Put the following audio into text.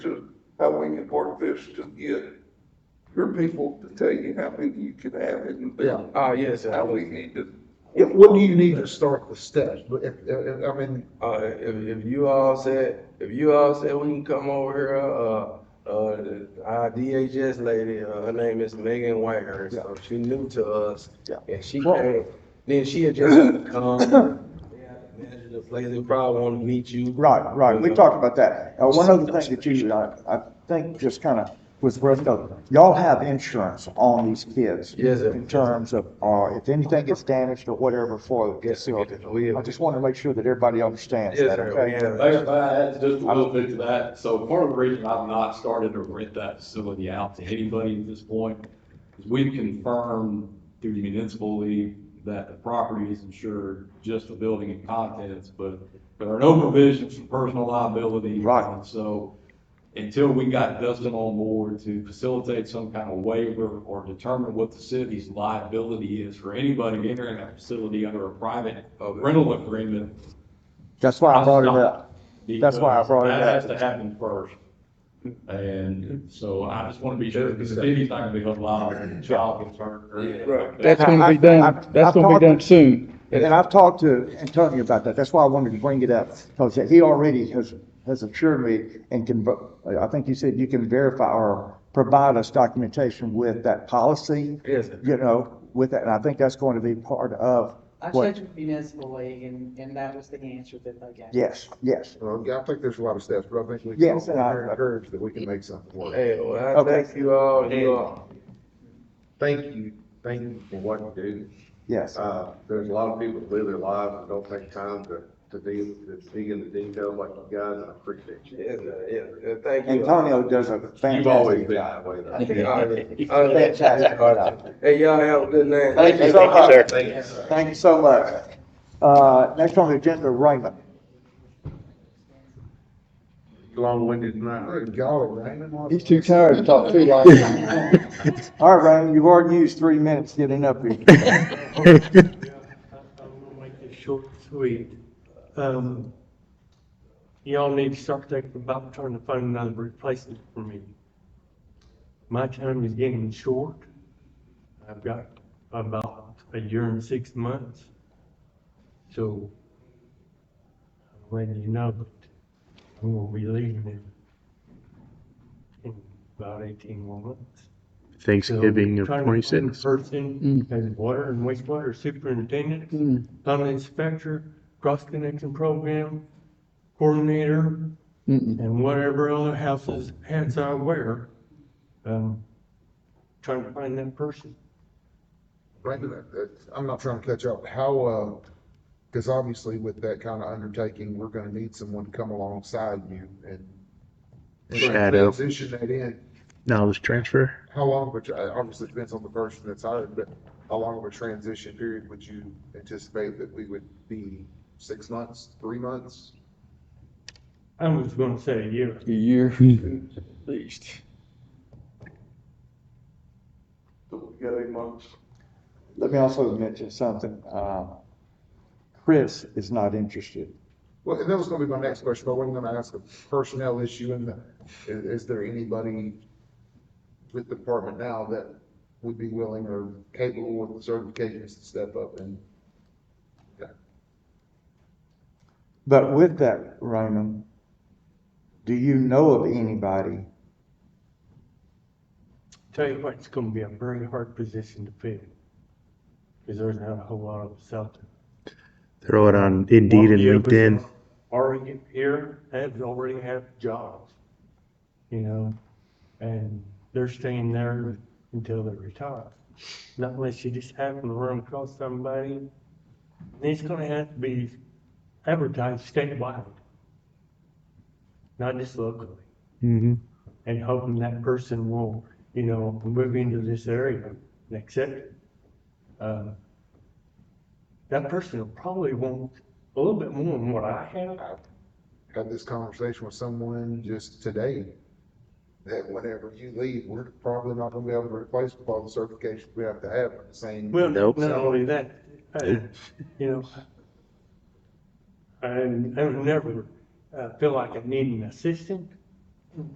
how we can work this to get your people to tell you how many you can have and Yeah, ah, yes, I how we would. need to, Yeah, what do you need to start with steps? But if, if, I mean, Uh, if, if you all said, if you all said we can come over here, uh, uh, the- our DHS lady, uh, her name is Megan Whitehurst, so she new to us. Yeah. And she Well- came, then she had just had to come, Um, they had to measure the place, they probably want to meet you. Right, right, we Yeah. talked about that. Uh, one other thing that you, I, I think just kind of was worth noting, y'all have insurance on these kids. Yes, sir. In terms of, uh, if anything gets damaged or whatever for the facility. We have- I just want to make sure that everybody understands Yes, that, sir, okay? we have- Mayor, if I add just a little bit to that, so part of the reason I've not started to rent that facility out to anybody at this point is we've confirmed through the municipal league that the property is insured, just the building and contents, but there are no provisions for personal liability. Right. So until we got Dustin on board to facilitate some kind of waiver or determine what the city's liability is for anybody entering that facility under a private uh, rental agreement, That's why I brought it up. That's why I brought it because up. That has to happen first. And so I just want to be sure, because the city's not going to be allowed child concern. or anything like that. That's gonna be done, that's gonna be done soon. And I've talked to Antonio about that, that's why I wanted to bring it up, because he already has, has assured me and can, ver- I think you said you can verify or provide us documentation with that policy. Yes, sir. You know, with that, and I think that's going to be part of I what, checked with municipal league and, and that was the answer that they gave. yes, yes, uh, I think there's a lot of steps, but I think we can Yes, and I- encourage that we can make something work. Hey, well, I Okay. thank you all, you all. Thank you, thank you for what you do. yes. Uh, there's a lot of people that live their lives and don't take time to, to deal, to dig into details like you guys, and I appreciate you. Yes, sir, yes, sir, thank you. all. Antonio does a You've always fantastic been job. that way. though. Fantastic job. Hey, y'all have a good night. Thank you so much. Thank you. Thank you so much. Uh, next on the agenda, Raymond. Long-winded tonight. Golly, Raymond. He's too tired to talk too long. All right, Raymond, you've already used three minutes getting up here. I'm gonna make this short and sweet. Um, y'all need to start thinking about trying to find another replacement for me. My time is getting short. I've got about a year and six months. So I'm letting you know that I'm gonna be leaving in, in about eighteen more months. Thanksgiving So, of trying to find a twenty-six. Mm. Person as water and wastewater superintendent, Mm. tunnel inspector, cross connection program coordinator, Mm-mm. and whatever other houses, hats I wear. Um, trying to find that person. Raymond, uh, I'm not trying to catch up. How, uh, because obviously with that kind of undertaking, we're going to need someone to come alongside you and and Shadow. Transition that in. Knowledge transfer. How long, of a tr- uh obviously depends on the person that's hired, but how long of a transition period would you anticipate that we would be? Six months, three months? I was gonna say a year. A year, at least. so we got eight months. Let me also mention something, uh, Chris is not interested. Well, and that was going to be my next question, but I wasn't going to ask a personnel issue in the, i- is, there anybody with the department now that would be willing or capable with the certifications to step up and? But with that, Raymond, do you know of anybody? Tell you what, it's gonna be a very hard position to fill. Cause there's not a whole lot of us out there. Throw it on Indeed and Well, yeah, but LinkedIn. Already here, have already have jobs, you know, and they're staying there until they retire. Not unless you just happen to run across somebody. And It's gonna have to be advertised statewide. Not just locally, Mm-hmm. and hoping that person will, you know, move into this area and accept it. Uh, That person will probably want a little bit more than what I have. had this conversation with someone just today, that whenever you leave, we're probably not gonna be able to replace all the certifications we have to have in the same. Well, Nope. not only that, uh, you know, I, I would never uh, feel like I need an assistant,